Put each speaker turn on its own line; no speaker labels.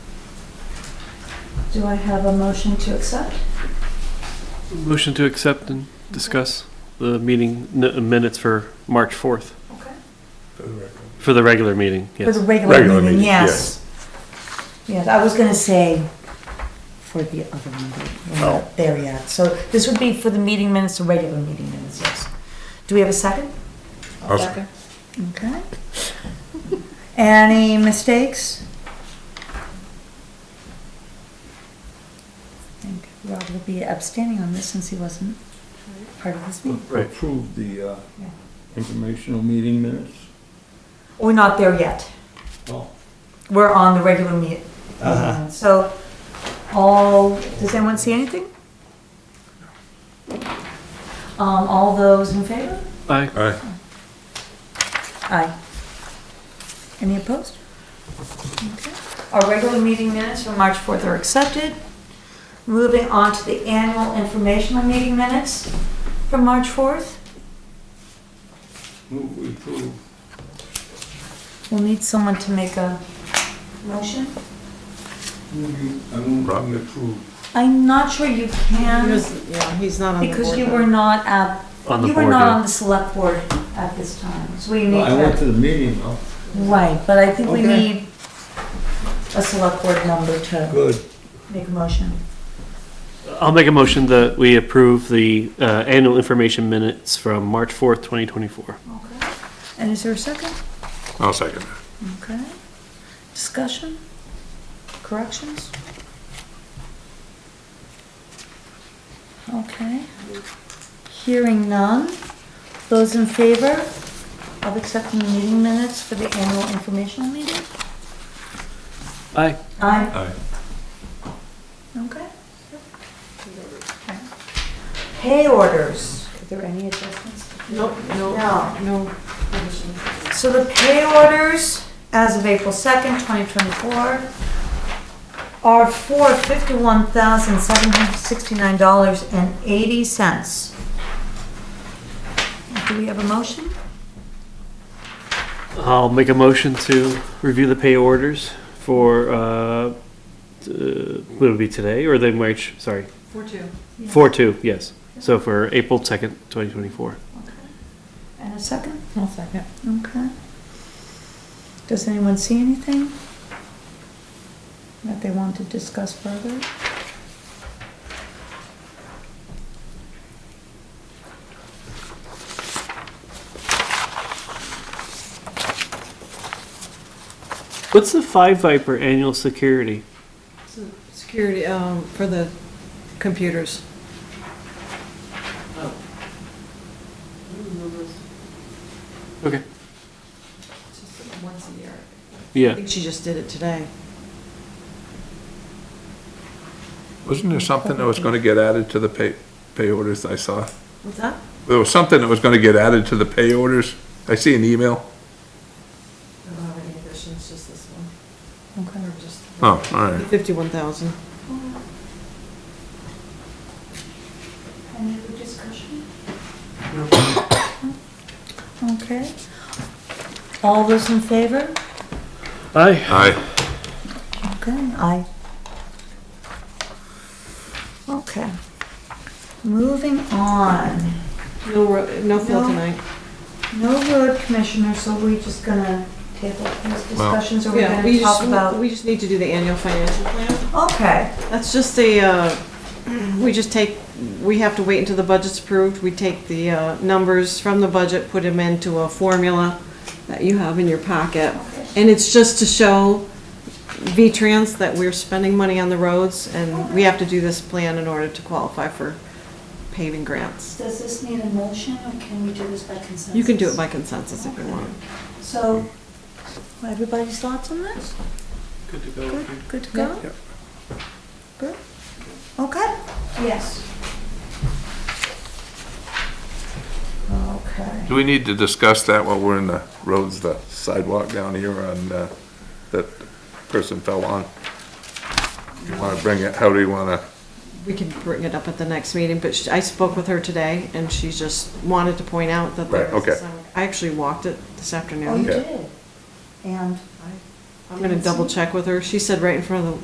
Do I have a motion to accept?
Motion to accept and discuss the meeting n- minutes for March 4th,
Okay.
for the regular meeting,
For the
yes.
regular
Regular
meeting,
meeting,
yes. Yes, I was gonna say for the other one, but we're
Oh.
not there yet. So this would be for the meeting minutes, the regular meeting minutes, yes. Do we have a second?
I'll-
Okay. Any mistakes? I think Rob will be abstaining on this since he wasn't part of this meeting.
Right.
approve the uh,
Yeah.
informational meeting minutes?
We're not there yet.
Oh.
We're on the regular meet. So, all, does anyone see anything? Um, all those in favor?
Aye.
Aye.
Aye. Any opposed? Okay. Our regular meeting minutes from March 4th are accepted. Moving on to the annual informational meeting minutes from March 4th.
Move we approve.
We'll need someone to make a motion.
Move
Mm-hmm.
you- I move we approve.
I'm not sure you can.
He was- Yeah, he's not on the board.
Because you
though.
were not at,
On the
you were
board,
not
yeah.
on the select board at this time, so we need
I went
to.
to the meeting, though.
Right, but I think we
Okay.
need a select board member to
Good.
make a motion.
I'll make a motion that we approve the uh, annual information minutes from March 4th, 2024.
Okay. And is there a second?
I'll second
Okay. Discussion? Corrections? Okay. Hearing none. Those in favor of accepting the meeting minutes for the annual informational meeting?
Aye.
Aye.
that. Aye.
Okay. Pay orders. Are there any adjustments?
Nope, no,
No.
no.
So the pay orders as of April 2nd, 2024 are for $51,769.80. Do we have a motion?
I'll make a motion to review the pay orders for, uh, t- uh, what would it be today, or the March, sorry,
Four two.
4/2, yes. So for April 2nd, 2024.
And a second?
I'll second.
Okay. Does anyone see anything that they want to discuss further?
What's the Five Viper annual security?
So, Security, um, for the computers.
Okay.
Once a year. I
Yeah.
think she just did it today.
Wasn't there something that was gonna get added to the pay, pay orders I saw?
What's that?
There was something that was gonna get added to the pay orders. I see an email.
I don't have any additions, just this one.
Okay.
Oh, all right.
Fifty-one thousand.
Any other discussion? Okay. All those in favor?
Aye.
Aye.
Okay, aye. Okay. Moving on.
No, ro- no fill
No.
tonight.
No road commissioner, so we just gonna table these
Well-
discussions or we're
Yeah, we
gonna talk
just,
about?
we just need to do the annual financial plan.
Okay,
That's just a, uh, we just take, we have to wait until the budget's approved. We take the, uh, numbers from the budget, put them into a formula that you have in your pocket. And it's just to show V-Trans that we're spending money on the roads and we have to do this plan in order to qualify for paving grants.
does this need a motion or can we do this by consensus?
You can do it by consensus if you want.
So, everybody's thoughts on this?
Good to
Good, good to go?
Yep.
Good? Okay. Yes. Okay.
Do we need to discuss that while we're in the roads, the sidewalk down here on, uh, that person fell on? Do you wanna bring it, how do you wanna?
We can bring it up at the next meeting, but she- I spoke with her today, and she just wanted to point out that there
Right,
is a
okay.
sidewalk. I actually walked it this
Oh, you
afternoon.
Okay.
did? And?
I'm gonna double check with her. She said right in front of